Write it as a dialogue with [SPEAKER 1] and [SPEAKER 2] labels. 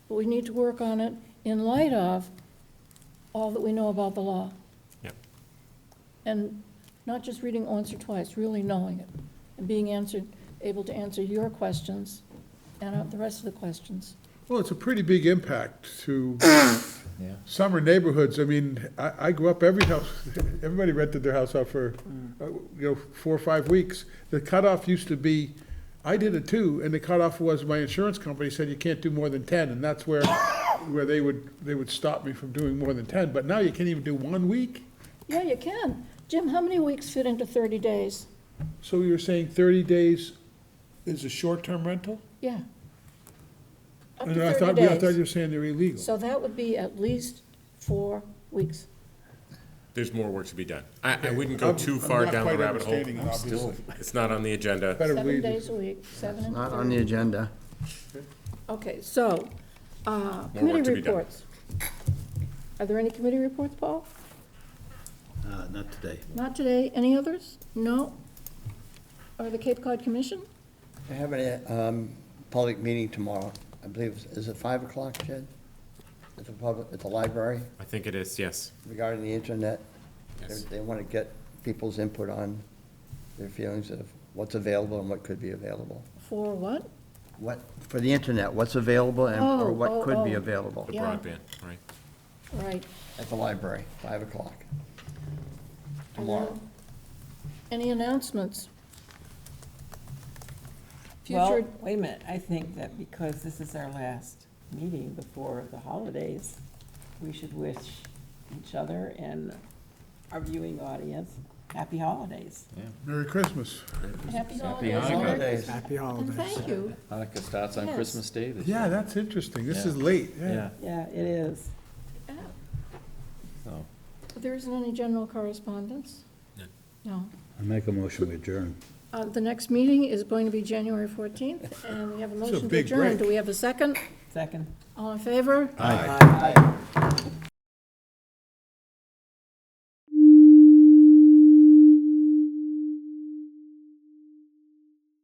[SPEAKER 1] but we need to work on it in light of all that we know about the law.
[SPEAKER 2] Yep.
[SPEAKER 1] And not just reading once or twice, really knowing it, and being answered, able to answer your questions and uh, the rest of the questions.
[SPEAKER 3] Well, it's a pretty big impact to
[SPEAKER 4] Yeah.
[SPEAKER 3] summer neighborhoods. I mean, I, I grew up, every house, everybody rented their house out for,
[SPEAKER 1] Mm.
[SPEAKER 3] uh, you know, four or five weeks. The cutoff used to be, I did it too, and the cutoff was my insurance company said you can't do more than ten, and that's where, where they would, they would stop me from doing more than ten, but now you can't even do one week?
[SPEAKER 1] Yeah, you can. Jim, how many weeks fit into thirty days?
[SPEAKER 3] So you're saying thirty days is a short-term rental?
[SPEAKER 1] Yeah. Up
[SPEAKER 3] And I
[SPEAKER 1] to
[SPEAKER 3] thought- yeah,
[SPEAKER 1] thirty
[SPEAKER 3] I thought you
[SPEAKER 1] days.
[SPEAKER 3] were saying they're illegal.
[SPEAKER 1] So that would be at least four weeks.
[SPEAKER 2] There's more work to be done. I, I wouldn't go
[SPEAKER 3] I'm-
[SPEAKER 2] too
[SPEAKER 3] I'm
[SPEAKER 2] far
[SPEAKER 3] not
[SPEAKER 2] down the
[SPEAKER 3] quite
[SPEAKER 2] rabbit hole.
[SPEAKER 3] understanding it, obviously.
[SPEAKER 2] It's not on the agenda.
[SPEAKER 3] Better
[SPEAKER 1] Seven
[SPEAKER 3] leave it.
[SPEAKER 1] days a week, seven and
[SPEAKER 4] Not on the
[SPEAKER 1] thirty.
[SPEAKER 4] agenda.
[SPEAKER 1] Okay, so, uh,
[SPEAKER 2] More work
[SPEAKER 1] committee
[SPEAKER 2] to be done.
[SPEAKER 1] reports. Are there any committee reports, Paul?
[SPEAKER 5] Uh, Not today.
[SPEAKER 1] Not today. Any others? No? Or the Cape Cod Commission?
[SPEAKER 5] I have a um, public meeting tomorrow. I believe, it's- is it 5 o'clock, Jed? At the public, at the library
[SPEAKER 2] I think it is, yes.
[SPEAKER 5] regarding the internet. They-
[SPEAKER 2] Yes.
[SPEAKER 5] They want to get people's input on their feelings of what's available and what could be available.
[SPEAKER 1] For what?
[SPEAKER 5] What, for the internet, what's available and
[SPEAKER 1] Oh,
[SPEAKER 5] or
[SPEAKER 1] oh,
[SPEAKER 5] what could be
[SPEAKER 1] oh.
[SPEAKER 5] available
[SPEAKER 2] The
[SPEAKER 1] Yeah.
[SPEAKER 2] broadband, right?
[SPEAKER 1] Right.
[SPEAKER 5] at the library, 5 o'clock tomorrow.
[SPEAKER 1] Any announcements?
[SPEAKER 6] Well,
[SPEAKER 1] Future,
[SPEAKER 6] wait a minute, I think that because this is our last meeting before the holidays, we should wish each other and our viewing audience happy holidays.
[SPEAKER 3] Merry Christmas.
[SPEAKER 1] happy
[SPEAKER 4] Hanukkah.
[SPEAKER 1] holidays.
[SPEAKER 5] Holidays.
[SPEAKER 1] And thank you.
[SPEAKER 4] Hanukkah starts on
[SPEAKER 1] Yes.
[SPEAKER 4] Christmas Day this year.
[SPEAKER 3] Yeah, that's interesting. This is
[SPEAKER 4] Yeah.
[SPEAKER 3] late, yeah.
[SPEAKER 4] Yeah,
[SPEAKER 6] Yeah, it is.
[SPEAKER 1] Yeah.
[SPEAKER 4] so,
[SPEAKER 1] But There isn't any general correspondence?
[SPEAKER 2] None.
[SPEAKER 1] No.
[SPEAKER 7] I make a motion to adjourn.
[SPEAKER 1] Uh, The next meeting is going to be January 14th, and we have a motion to
[SPEAKER 3] big
[SPEAKER 1] adjourn.
[SPEAKER 3] break.
[SPEAKER 1] Do we have a second?
[SPEAKER 6] Second.
[SPEAKER 1] All in favor?
[SPEAKER 6] Aye.